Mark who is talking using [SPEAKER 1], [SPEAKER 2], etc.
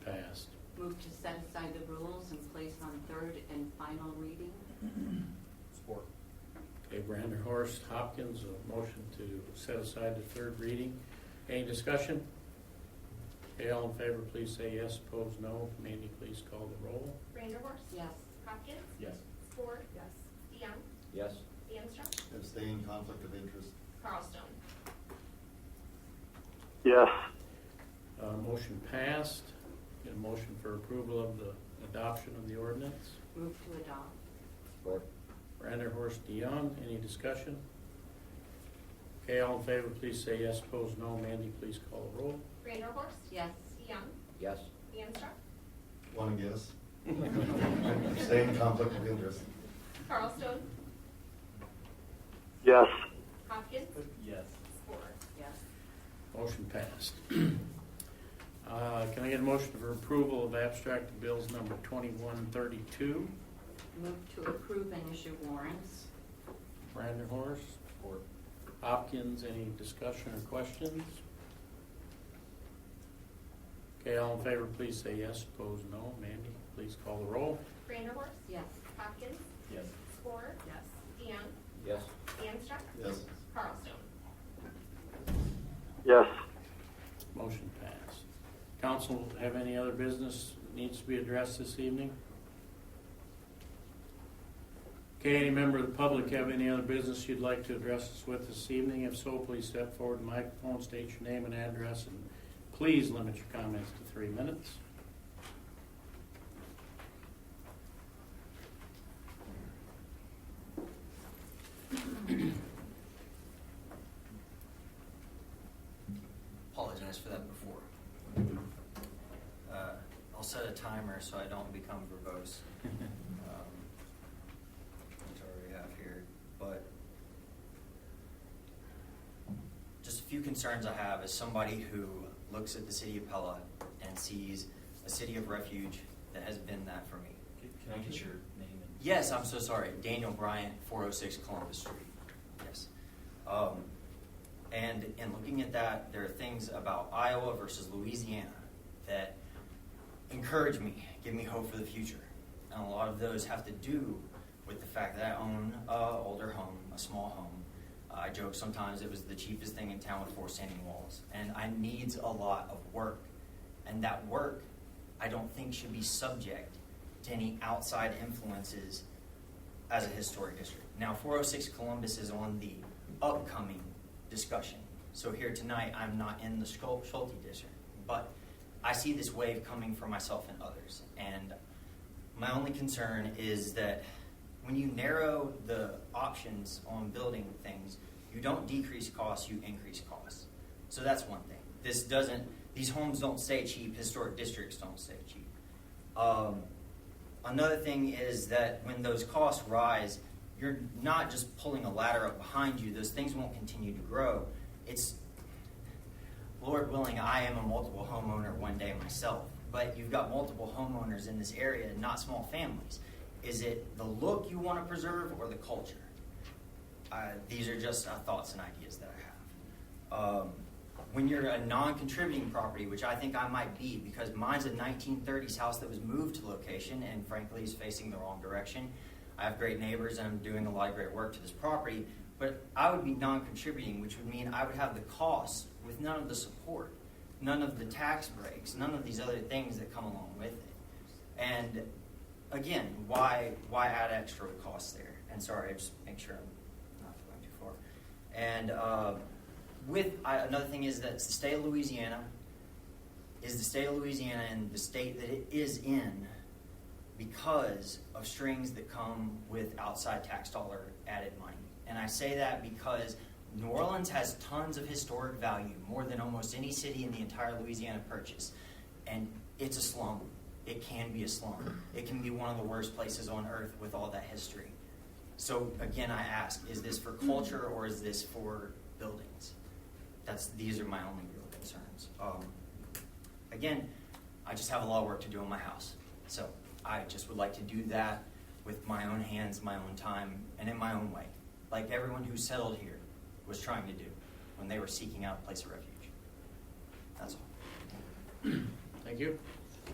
[SPEAKER 1] Move to set aside the rules and place on third and final reading.
[SPEAKER 2] Support.
[SPEAKER 3] Okay, Brander, Horace, Hopkins, a motion to set aside the third reading. Any discussion? Okay, all in favor, please say yes, opposed no. Mandy, please call the roll.
[SPEAKER 4] Branderhorst?
[SPEAKER 1] Yes.
[SPEAKER 4] Hopkins?
[SPEAKER 2] Yes.
[SPEAKER 4] Ford? Yes. DeYoung?
[SPEAKER 5] yes,
[SPEAKER 4] Danstruck?
[SPEAKER 2] Abstain, conflict of interest.
[SPEAKER 4] Carlstone?
[SPEAKER 6] yes,
[SPEAKER 3] Uh, motion passed. Get a motion for approval of the adoption of the ordinance.
[SPEAKER 1] Move to adopt.
[SPEAKER 5] support,
[SPEAKER 3] Brander, Horace, DeYoung, any discussion? Okay, all in favor, please say yes, opposed no. Mandy, please call the roll.
[SPEAKER 4] Branderhorst?
[SPEAKER 1] Yes.
[SPEAKER 4] DeYoung?
[SPEAKER 5] yes,
[SPEAKER 4] Danstruck?
[SPEAKER 7] One guess. Same conflict of interest.
[SPEAKER 4] Carlstone?
[SPEAKER 6] yes,
[SPEAKER 4] Hopkins?
[SPEAKER 2] Yes.
[SPEAKER 4] Ford?
[SPEAKER 1] Yes.
[SPEAKER 3] Motion passed. Uh, Can I get a motion for approval of abstract of bills number 2132?
[SPEAKER 1] Move to approve and issue warrants.
[SPEAKER 3] Brandon Horace,
[SPEAKER 2] Support.
[SPEAKER 3] Hopkins, any discussion or questions? Okay, all in favor, please say yes, opposed no. Mandy, please call the roll.
[SPEAKER 4] Branderhorst?
[SPEAKER 1] Yes.
[SPEAKER 4] Hopkins?
[SPEAKER 2] Yes.
[SPEAKER 4] Ford?
[SPEAKER 1] Yes.
[SPEAKER 4] DeYoung?
[SPEAKER 5] yes,
[SPEAKER 4] Danstruck?
[SPEAKER 7] Yes.
[SPEAKER 4] Carlstone?
[SPEAKER 6] yes,
[SPEAKER 3] Motion passed. Council, have any other business that needs to be addressed this evening? Okay, any member of the public have any other business you'd like to address us with this evening? If so, please step forward to the microphone, state your name and address, and please limit your comments to three minutes.
[SPEAKER 8] apologize for that before. Uh, I'll set a timer so I don't become verbose. Um, That's all we have here, but just a few concerns I have as somebody who looks at the city of Pella and sees a city of refuge that has been that for me.
[SPEAKER 2] Can I get your name and?
[SPEAKER 8] Yes, I'm so sorry. Daniel Bryant, 406 Columbus Street. Yes. Um, and in looking at that, there are things about Iowa versus Louisiana that encourage me, give me hope for the future. And a lot of those have to do with the fact that I own a older home, a small home. I joke sometimes it was the cheapest thing in town with four standing walls. And I needs a lot of work. And that work, I don't think should be subject to any outside influences as a historic district. Now, 406 Columbus is on the upcoming discussion. So here tonight, I'm not in the Schul- Schulte district, but I see this wave coming for myself and others. And my only concern is that when you narrow the options on building things, you don't decrease costs, you increase costs. So that's one thing. This doesn't, these homes don't stay cheap, historic districts don't stay cheap. Um, another thing is that when those costs rise, you're not just pulling a ladder up behind you, those things won't continue to grow. It's, Lord willing, I am a multiple homeowner one day myself, but you've got multiple homeowners in this area and not small families. Is it the look you want to preserve or the culture? Uh, these are just uh, thoughts and ideas that I have. Um, when you're a non-contributing property, which I think I might be, because mine's a 1930s house that was moved to location and frankly is facing the wrong direction. I have great neighbors and I'm doing a lot of great work to this property, but I would be non-contributing, which would mean I would have the cost with none of the support, none of the tax breaks, none of these other things that come along with it. And again, why why add extra costs there? And sorry, I just make sure I'm not going too far. And uh, with I, another thing is that the state of Louisiana is the state of Louisiana and the state that it is in because of strings that come with outside tax dollar added money. And I say that because New Orleans has tons of historic value, more than almost any city in the entire Louisiana Purchase. And it's a slum. It can be a slum. It can be one of the worst places on earth with all that history. So again, I ask, is this for culture or is this for buildings? That's, these are my only real concerns. Um, again, I just have a lot of work to do on my house. So I just would like to do that with my own hands, my own time, and in my own way. Like everyone who settled here was trying to do when they were seeking out a place of refuge. That's all.
[SPEAKER 3] Thank you.